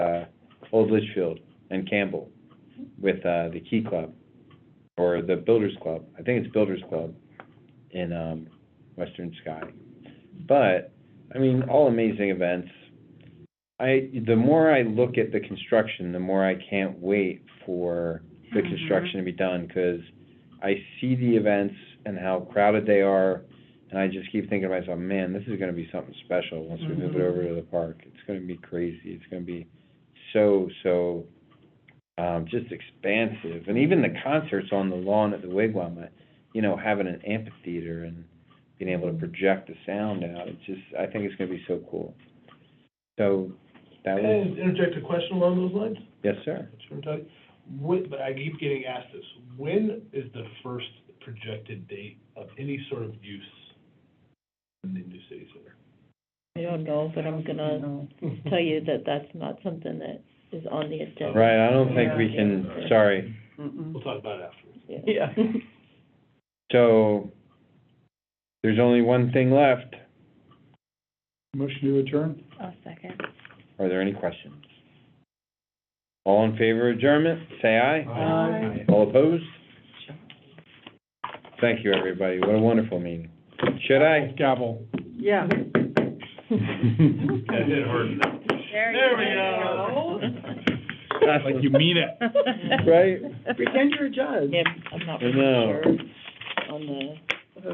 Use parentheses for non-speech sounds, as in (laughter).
uh, Old Litchfield and Campbell with uh, the Key Club or the Builders Club. I think it's Builders Club in um, Western Sky. But I mean, all amazing events. I the more I look at the construction, the more I can't wait for the Mhm. construction to be done because I see the events and how crowded they are, and I just keep thinking to myself, man, this is going to be something special once we move it Mhm. over to the park. It's going to be crazy. It's going to be so so um, just expansive, and even the concerts on the lawn at the wigwam. I- You know, having an amphitheater and being able to project the sound out. It's just, I think it's gonna be so cool. So, that Can was, I interject a question along those lines? yes, sir. Sure, Todd. When, but I keep getting asked this, when is the first projected date of any sort of use in the new city center? I don't know, but Mm-hmm. I'm gonna Mm-hmm. tell you that that's not something that is on the agenda. Right, I don't think we can, sorry. Mm-hmm. We'll talk about it afterwards. (laughs) Yeah. So, there's only one thing left. Motion to adjourn? I'll second. Are there any questions? All in favor of adjournment, say aye. Aye. All opposed? Thank you, everybody. What a wonderful meeting. Should I? Gavel. (laughs) Yeah. (laughs) That did hurt enough. There we go. Like you mean it. (laughs) Right? Pretend you're a judge. (laughs) Yeah, I'm not I really know. sure on the